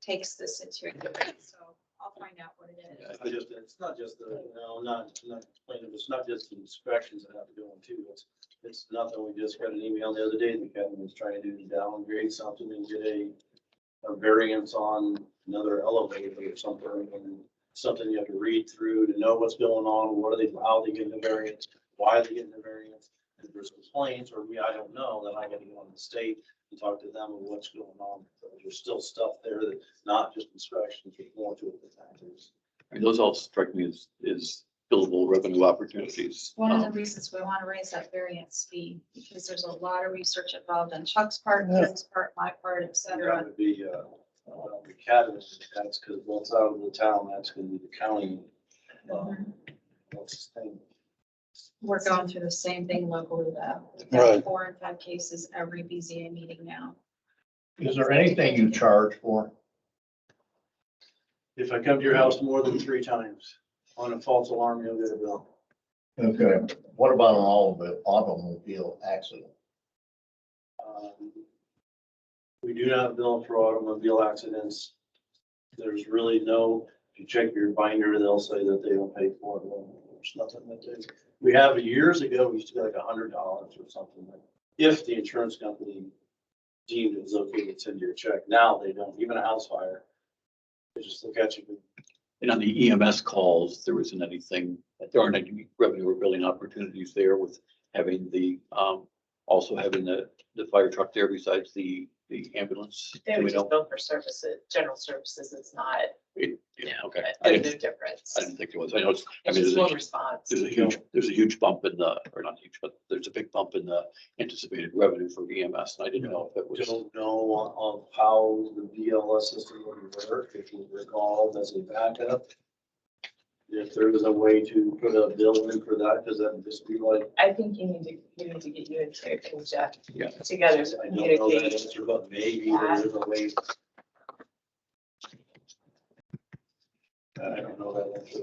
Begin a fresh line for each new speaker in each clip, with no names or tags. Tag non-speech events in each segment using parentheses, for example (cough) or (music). takes this into account, so I'll find out what it is.
It's not just- It's not just the, no, not, not complaining, it's not just the inspections that have to go in too. It's, it's nothing. We just got an email the other day that Kevin was trying to do to downgrade something and get a, a variance on another elevator or something. and Something you have to read through to know what's going on, what are they, how they getting the variance, why are they getting the variance? If there's complaints or we, I don't know, then I gotta go on the state and talk to them of what's going on. There's still stuff there that's not just inspections, there's more to it than that. There's-
I mean, those all strike me as, as billable revenue opportunities.
One of the
Um,
reasons we want to raise that variance fee, because there's a lot of research involved on Chuck's part, Ken's part, my part, et
That
cetera.
would be, uh, uh, the catalyst, that's because once out of the town, that's gonna be the county.
Mm-hmm.
um, what's the thing?
Mhm. We're going through the same thing locally though. We've got
Right.
four and five cases every BZA meeting now.
Is there anything you charge for?
If I come to your house more than three times on a false alarm, you'll get a bill.
Okay, what about an automobile, automobile accident?
Um, We do not bill for automobile accidents. There's really no, if you check your binder, they'll say that they don't pay for it. Well, There's nothing that they, we have, years ago, we used to get like a hundred dollars or something. like, If the insurance company deemed it was okay to send you a check, now they don't, even a house fire. They just look at you,
And on the EMS calls, there isn't anything, there aren't any revenue or billing opportunities there with having the, um, also having the, the fire truck there besides the, the ambulance.
They
Do
would
we
just
know?
bill for services, general services, it's not,
Yeah,
yeah,
okay.
but
I
there's no
didn't,
difference.
I didn't think there was. I know it's, I
It's
mean,
just
there's
one
a,
response.
there's a huge, there's a huge bump in the, or not huge, but there's a big bump in the anticipated revenue for EMS. And I didn't know if it was.
don't know of how the VLS system would work, if you recall, as a backup. If there was a way to put a bill in for that, because that'd just be like,
I think you need to, you need to get you and Terry and Jeff
Yeah.
together to
I don't know that
communicate.
answer, but maybe there's a way. I don't know that answer.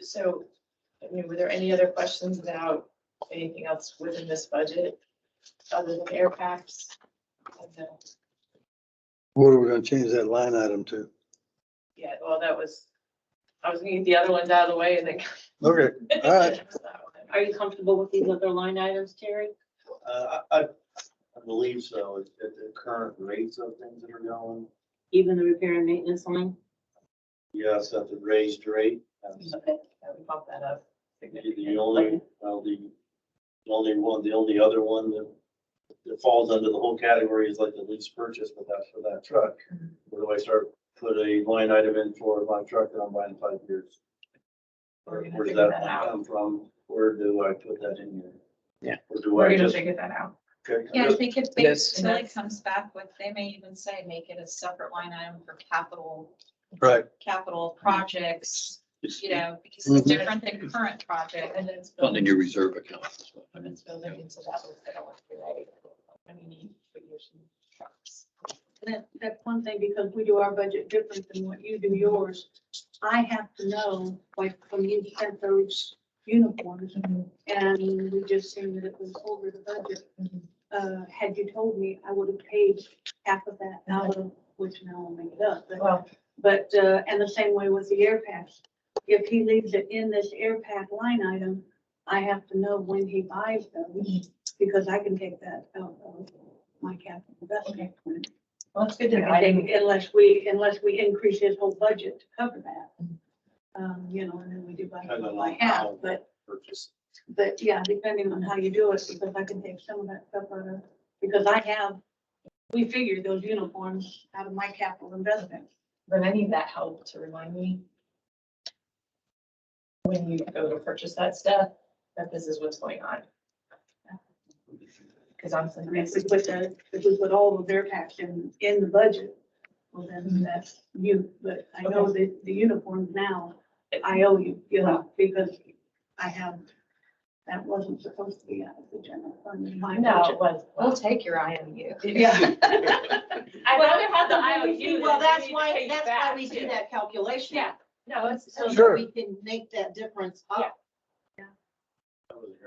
So, I mean, were there any other questions about anything else within this budget other than air packs? And the-
What are we gonna change that line item to?
Yeah, well, that was, I was gonna get the other ones out of the way and then.
Okay,
(laughs)
all right.
Are you comfortable with these other line items, Terry?
Uh, I, I I believe so, at at the current rates of things that are going.
Even the repair and maintenance line?
Yes, at the raised rate. that's-
Okay, yeah, we bump that up.
The only, well, the the only one, the only other one that, that falls under the whole category is like the lease purchase, but that's for that truck. Where do I start, put a line item in for my truck that I'm buying in five years?
We're
Or
gonna
where does
figure
that
that out.
come from? Where do I put that in here?
Yeah.
Or do
We're
I
gonna
just?
figure that out.
okay, I'm
Yeah, I
just-
think if they,
Yes.
until it comes back with, they may even say, make it a separate line item for capital,
Right.
capital projects,
It's
you know, because
Mhm.
it's different than current project.
And then it's
not in
building,
your reserve account. is what I
and
meant.
it's building into that list that I want to write. I mean, for your trucks.
That, that's one thing, because we do our budget different than what you do yours. I have to know, like, when you sent those uniforms, and we just seen that it was over the budget. Uh, had you told me, I would have paid half of that out of, which now I'll make it up, but
Well,
But, uh, and the same way with the air pass. If he leaves it in this air pack line item, I have to know when he buys those because I can take that out of my capital investment. plan.
well, it's good to know. I
I
didn't,
think unless we, unless we increase his whole budget to cover that. Um, you know, and then we do by,
Depending on
by
how-
half, but,
Purchase.
but yeah, depending on how you do it, because I can take some of that stuff out of, because I have, we figured those uniforms out of my capital investment.
but I need that help to remind me when you go to purchase that stuff, that this is what's going on. Because honestly,
I mean, if we put the, if we put all of their tax in, in the budget, well, then that's you, but I know that the uniforms now, I owe you, you know, because I have, that wasn't supposed to be out of the general fund in my
No, it
budget.
was.
We'll take your IMU.
(laughs) Yeah. I'd rather have the IOU.
(laughs) Well,
than
that's
we pay
why,
you
that's why
back,
we
too.
do that calculation.
Yeah. No, it's.
So that
Sure.
we can make that difference up.
That was a